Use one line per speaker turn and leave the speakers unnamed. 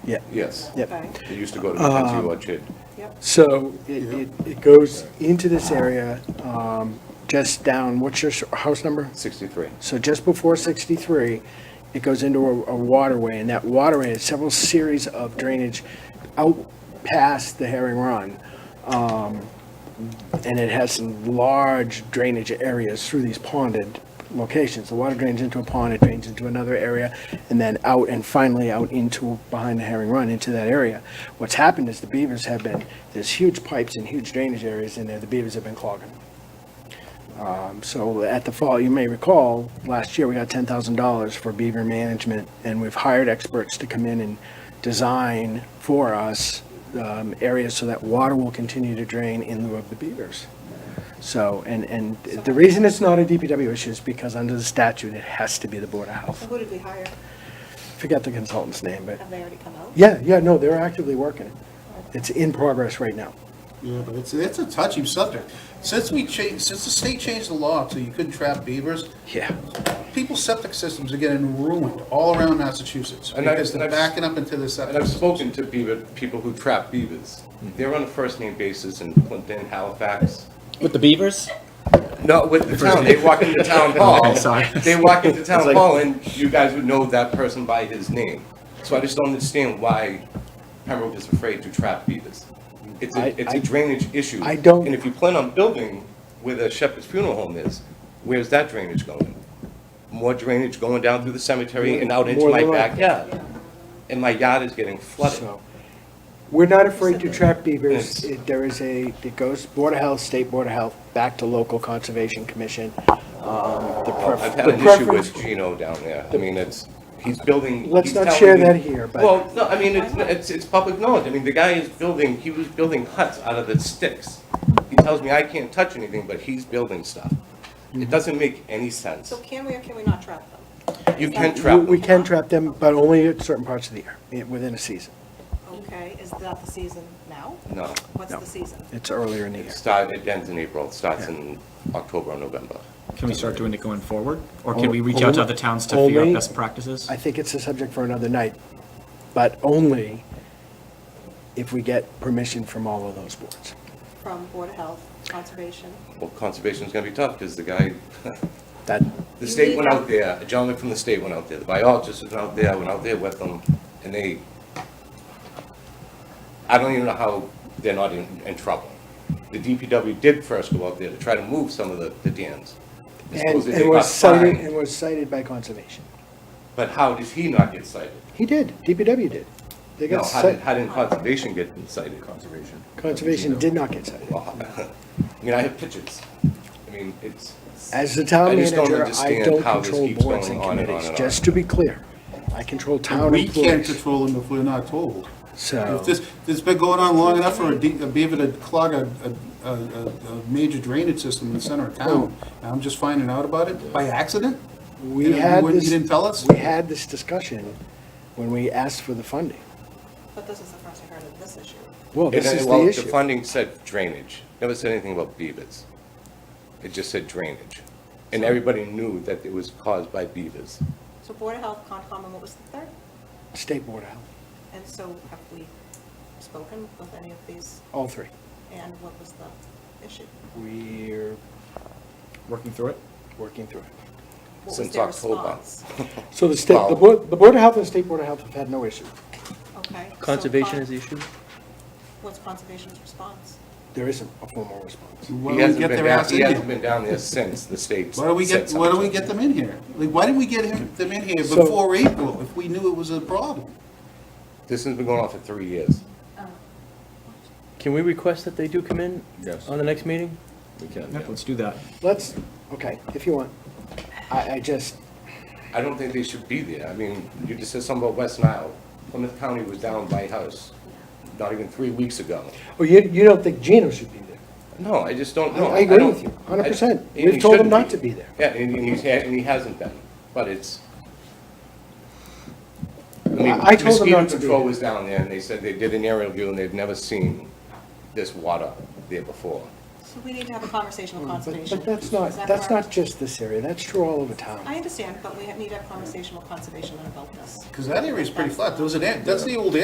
Yeah,
Yes.
yep.
Okay,
It used to go to Mackenzie Orchard.
yep,
So it, it it goes into this area, um, just down, what's your s- house number?
63.
So just before 63, it goes into a a waterway, and that waterway has several series of drainage out past the Herring Run. Um, And it has some large drainage areas through these ponded locations. The water drains into a pond, it drains into another area, and then out and finally out into, behind the Herring Run, into that area. What's happened is the beavers have been, there's huge pipes and huge drainage areas in there, the beavers have been clogging. them. Um, So at the fall, you may recall, last year we got ten thousand dollars for beaver management, and we've hired experts to come in and design for us um, areas so that water will continue to drain in lieu of the beavers. So, and, and the reason it's not a DPW issue is because under the statute, it has to be the Board of
so
Health.
who did we hire?
Forget the consultant's name, but,
Have they already come out?
yeah, yeah, no, they're actively working it. It's in progress right now.
Yeah, but it's, that's a touchy subject. Since we changed, since the state changed the law so you couldn't trap beavers,
Yeah.
people's septic systems are getting ruined all around Massachusetts
And I-
because they're
and I've-
backing up into the septic.
And I've spoken to beaver, people who trap beavers. They're on a first-name basis in Clinton, Halifax.
With the beavers?
No, with the town, they walk into town hall. They walk into town hall and you guys would know that person by his name. So I just don't understand why Pembroke is afraid to trap beavers. It's
I-
a, it's
I-
a drainage issue.
I don't-
And if you plan on building where the Shepherd's Funeral Home is, where's that drainage going? More drainage going down through the cemetery and out into
More
my
than likely.
backyard. And my yard is getting flooded.
So, We're not afraid to trap beavers.
Yes.
It- There is a, it goes Board of Health, State Board of Health, back to local Conservation Commission. Um, The pref-
I've had
the
an issue
preference-
with Gino down there. I mean, it's, he's building.
Let's
he's
not
telling
share
me-
that here, but-
Well, no, I mean, it's, it's, it's public knowledge. I mean, the guy is building, he was building huts out of the sticks. He tells me I can't touch anything, but he's building stuff.
Mm-hmm.
It doesn't make any sense.
So can we or can we not trap them?
You can
we-
trap
We
them.
can trap them, but only at certain parts of the year, i- within a season.
Okay, is that the season now?
No.
What's
No.
the season?
It's earlier in the
It
year.
starts, it ends in April, it starts in October or November.
Can we start doing it going forward? Or can we reach out
Only-
to other towns to figure
only-
out best practices?
I think it's a subject for another night, but only if we get permission from all of those boards.
From Board of Health, Conservation?
Well, conservation's gonna be tough, because the guy,
That,
the state went out there, a gentleman from the state went out there, the biologist was out there, I went out there with them, and they, I don't even know how they're not in, in trouble. The DPW did first go out there to try to move some of the, the dams.
and
Supposedly
and
they got
was cited,
fined,
and was cited by Conservation.
But how did he not get cited?
He did, DPW did. They
No,
got
how did,
cited.
how did conservation get cited? Conservation.
Conservation did not get cited.
Well, I mean, I have pictures. I mean, it's,
As the town
I just don't
manager, I
understand
don't
how this
control
keeps
boards
going
and
on and on
committees,
and on.
just to be clear. I control town
We can't
employees,
control them if we're not told.
so,
If this, this has been going on long enough for a de- a beaver to clog a, a, a, a- a major drainage system in the center
Oh.
of town, and I'm just finding out about it by accident?
we
And you
had
wouldn't-
this.
You didn't tell us?
We had this discussion when we asked for the funding.
But this is the first I heard of this issue.
Well,
It-
this is
well,
the
The
issue.
funding said drainage, never said anything about beavers. It just said drainage. And everybody knew that it was caused by beavers.
So Board of Health, Concom, and what was the third?
State Board of Health,
And so have we spoken with any of these,
all three.
and what was the issue?
We're
Working through it?
working through it.
What was
Since
their
October.
response?
So the state, the
Well-
Board, the Board of Health and State Board of Health have had no issue.
Okay. so
Conservation
con-
is the issue?
What's Conservation's response?
There isn't a formal response.
Why
He
don't we
hasn't
get
been
their
down,
ass
he
in
hasn't
here?
been down there since the state
Why don't we
said
get, why don't we
something.
get them in here? Like, why didn't we get him, them in here
So-
before April if we knew it was a problem?
This has been going on for three years.
Can we request that they do come in?
Yes.
On the next meeting?
We can,
Yep, let's do that.
Let's, okay, if you want. I, I just,
I don't think they should be there. I mean, you just said something about West Nile. Plymouth County was down by house, not even three weeks ago.
oh, you, you don't think Gino should be there?
No, I just don't
I-
know.
I agree
don't-
with you, 100%.
I- and
We've
he
told him
shouldn't
not to be there.
Yeah, and and he's, and he hasn't been, but it's. I mean,
I told him
mosquito
not to be
control
there.
was down there, and they said they did an aerial view, and they've never seen this water there before.
So we need to have a conversation with
Hmm, But,
Conservation.
but that's
Is
not,
that
that's
correct?
not just this area, that's true all over town.
I understand, but we need to have a conversation with Conservation about this.
Because that area's pretty flat. There was an, a- that's the old